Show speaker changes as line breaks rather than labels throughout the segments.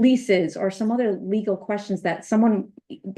leases or some other legal questions that someone,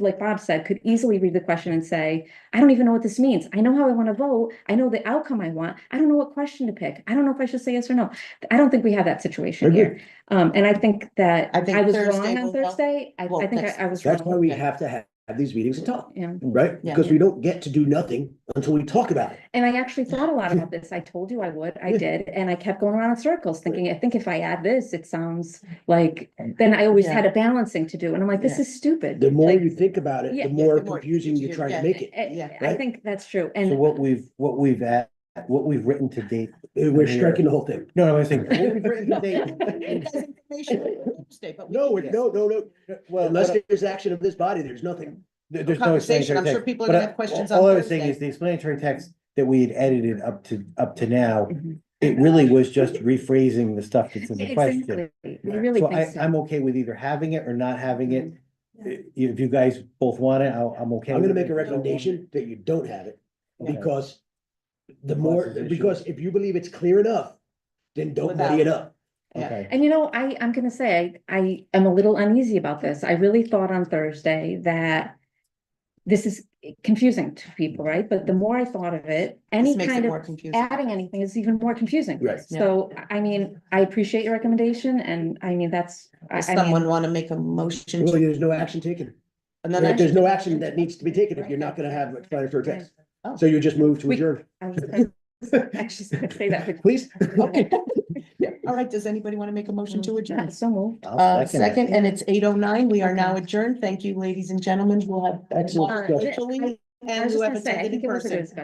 like Bob said, could easily read the question and say, I don't even know what this means. I know how I want to vote. I know the outcome I want. I don't know what question to pick. I don't know if I should say yes or no. I don't think we have that situation
Agree.
here. Um, and I think that
I think
I was
Thursday
wrong on
will help.
Thursday. I,
Well,
I think I-
next-
I was
That's why
wrong.
we
Okay.
have to have, have these meetings and talk,
Yeah.
right?
Yeah.
Because we don't get to do nothing until we talk about it.
And I actually thought a lot about this. I told you I would. I
Yeah.
did. And I kept going around in circles thinking, I think if I add this, it sounds like, then I always
Yeah.
had a balancing to do. And I'm like, this
Yeah.
is stupid.
The more
Like,
you think about it,
Yeah,
the
yeah,
more
the more
confusing you
confusing
try
you
to make
get.
it.
I,
Yeah.
I
Right?
think that's true.
So
And
what we've, what we've at, what we've written to date,
Uh, We're striking the whole thing.
no, no, I think.
What we've written to date-
That's information for Thursday, but we
No,
can
we're-
get
no, no, no.
Well,
Uh, Unless
what I-
there's action of this body, there's nothing.
there-
a
there's no
Conversation,
explanatory
I'm sure
text.
people are
But
gonna
I-
have questions on
All I was saying is
Thursday.
the explanatory text that we had edited up to, up to now,
Mm-hmm.
Mhm.
it really was just rephrasing the stuff that's in the question.
exactly, we really
So
think
I,
so.
I'm okay with either having it or not having it.
Mm-hmm.
I- If you guys both want it, I'll, I'm okay.
I'm gonna
with it.
make a recommendation that you don't have it
Yeah.
because the
Causes
more,
issues.
because if you believe it's clear enough, then don't muddy it up.
Okay,
And you know, I, I'm gonna say, I, I am a little uneasy about this. I really thought on Thursday that this is confusing to people, right? But the more I thought of it, any
This makes
kind
it
of
more confusing.
adding anything is even more confusing.
Right.
Yeah.
So, I I mean, I appreciate your recommendation and I mean, that's, I,
Does
I mean,
someone wanna make a motion?
Well,
to-
there's no action taken.
another
Right? There's no action
action?
that needs to be taken if you're not gonna have explanatory
Right.
text.
Oh.
So you just move to
We-
adjourn.
I was gonna- I was just gonna say that. but-
Please?
Okay. All right, does anybody wanna make a motion to
Yeah,
adjourn?
So moved.
I'll
Uh,
it.
second, and it's eight oh nine. We are now adjourned. Thank you, ladies and gentlemen. We'll have.
Excellent
discussion.
virtually,
I
And
was
you
just
have
gonna say, I
attended in
think it was a good
person.
discussion.